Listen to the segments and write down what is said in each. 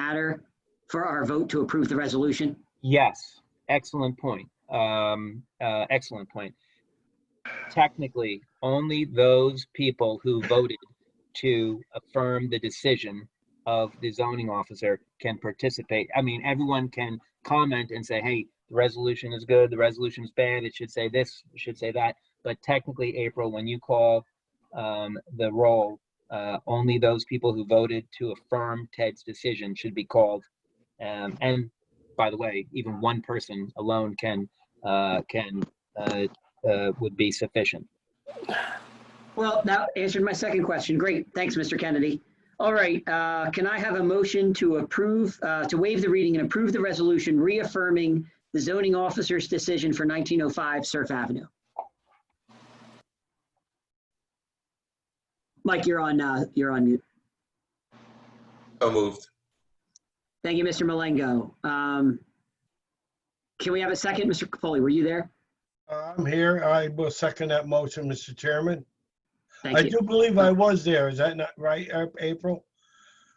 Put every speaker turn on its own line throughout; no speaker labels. matter for our vote to approve the resolution?
Yes, excellent point. Um, uh, excellent point. Technically, only those people who voted to affirm the decision of the zoning officer can participate. I mean, everyone can comment and say, hey, the resolution is good, the resolution is bad, it should say this, it should say that. But technically, April, when you call um, the roll, uh, only those people who voted to affirm Ted's decision should be called. Um, and by the way, even one person alone can, uh, can, uh, uh, would be sufficient.
Well, that answered my second question. Great, thanks, Mr. Kennedy. All right, uh, can I have a motion to approve, uh, to waive the reading and approve the resolution reaffirming the zoning officer's decision for 1905 Surf Avenue? Mike, you're on, uh, you're on mute.
So moved.
Thank you, Mr. Malengo. Um, Can we have a second? Mr. Capoli, were you there?
I'm here. I will second that motion, Mr. Chairman. I
Thank you.
do believe I was there. Is that not right, A- April?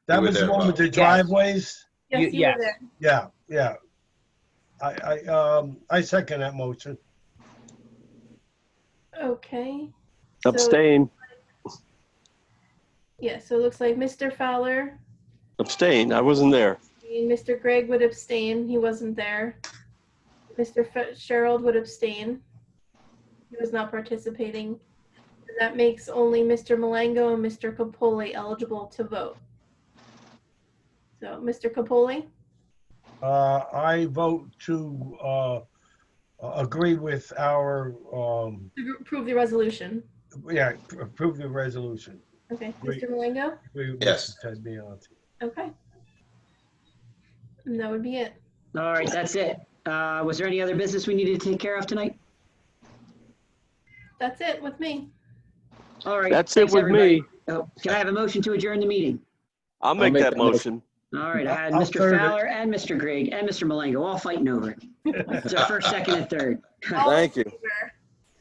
That
You were
was the
there,
one with the
Bob. Yes.
driveways?
You-
Yes, you
yes.
were there.
Yeah, yeah. I, I, um, I second that motion.
Okay. So-
Abstain,
Yeah, so it looks like Mr. Fowler
abstain. I wasn't there.
and Mr. Gregg would abstain. He wasn't there. Mr. Fitzgerald would abstain. He was not participating. And that makes only Mr. Malango and Mr. Capoli eligible to vote. So, Mr. Capoli?
Uh, I vote to, uh, agree with our, um,
Approve the resolution.
yeah, approve the resolution.
Okay,
Great.
Mr. Malango?
Agree with
Yes.
Ted Biondi.
Okay. And that would be it.
All right, that's it. Uh, Was there any other business we needed to take care of tonight?
That's it with me.
All right.
That's it
thanks,
with
everybody.
me.
Oh, Can I have a motion to adjourn the meeting?
I'll make that motion.
All right, I had
I'll
Mr.
third it.
Fowler and Mr. Grigg and Mr. Malengo all fighting over it. It's a first, second, and third.
All in
Thank you.
favor?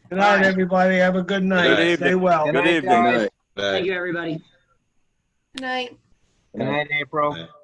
Good night, everybody. Have a good night.
Good
Stay
evening.
well.
Good evening.
Thank you, everybody.
Good night.
Good night, April.
Good night.